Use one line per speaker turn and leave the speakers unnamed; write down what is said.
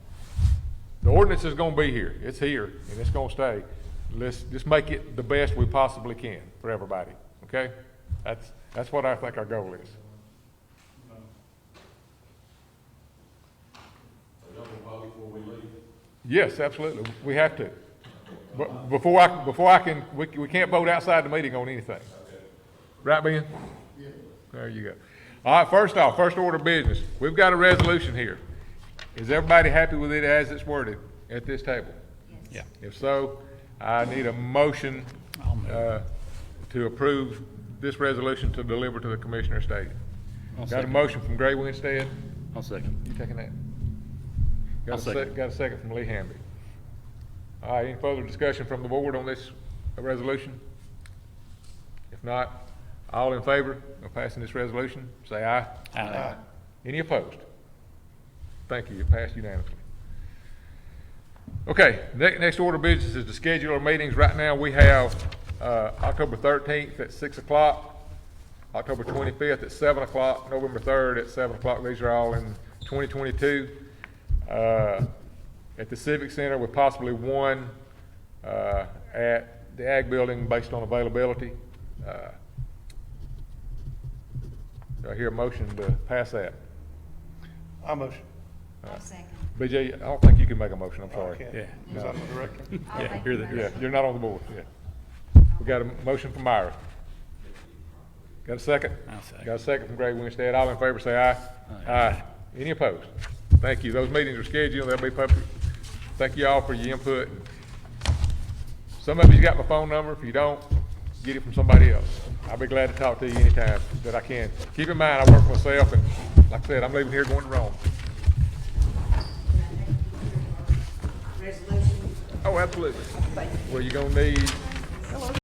ordinance is gonna be here, it's here, and it's gonna stay. Let's just make it the best we possibly can for everybody, okay? That's, that's what I think our goal is. Yes, absolutely, we have to. But before I, before I can, we, we can't vote outside the meeting on anything. Right, Ben? There you go. All right, first off, first order of business, we've got a resolution here. Is everybody happy with it as it's worded at this table?
Yeah.
If so, I need a motion uh, to approve this resolution to deliver to the commissioner stated. Got
I'll
a
second.
motion from Gray Winstead?
I'll second.
You taking that?
I'll
Got a sec,
second.
got a second from Lee Hamby. All right, any further discussion from the board on this resolution? If not, all in favor of passing this resolution, say aye.
Aye.
Any opposed? Thank you, it passed unanimously. Okay, ne- next order of business is to schedule our meetings. Right now, we have, uh, October thirteenth at six o'clock, October twenty-fifth at seven o'clock, November third at seven o'clock. These are all in twenty twenty-two. Uh, at the Civic Center with possibly one, uh, at the Ag Building based on availability. Uh, Do I hear a motion to pass that?
I motion.
I'll second.
BJ, I don't think you can make a motion, I'm sorry.
Okay.
Yeah.
Because I'm the director.
I'll
Yeah,
make
you're
the
the-
Yeah,
motion.
you're not on the board, yeah. We got a motion from Myra. Got a 2nd
I'll second.
Got a second from Greg Winstead. All in favor, say aye.
Aye.
Aye. Any opposed? Thank you. Those meetings are scheduled, they'll be public. Thank you all for your input. Some of you got my phone number. If you don't, get it from somebody else. I'll be glad to talk to you anytime that I can. Keep in mind, I work for myself, and like I said, I'm leaving here going to Rome.
Resolution
Oh, absolutely. Well, you're gonna need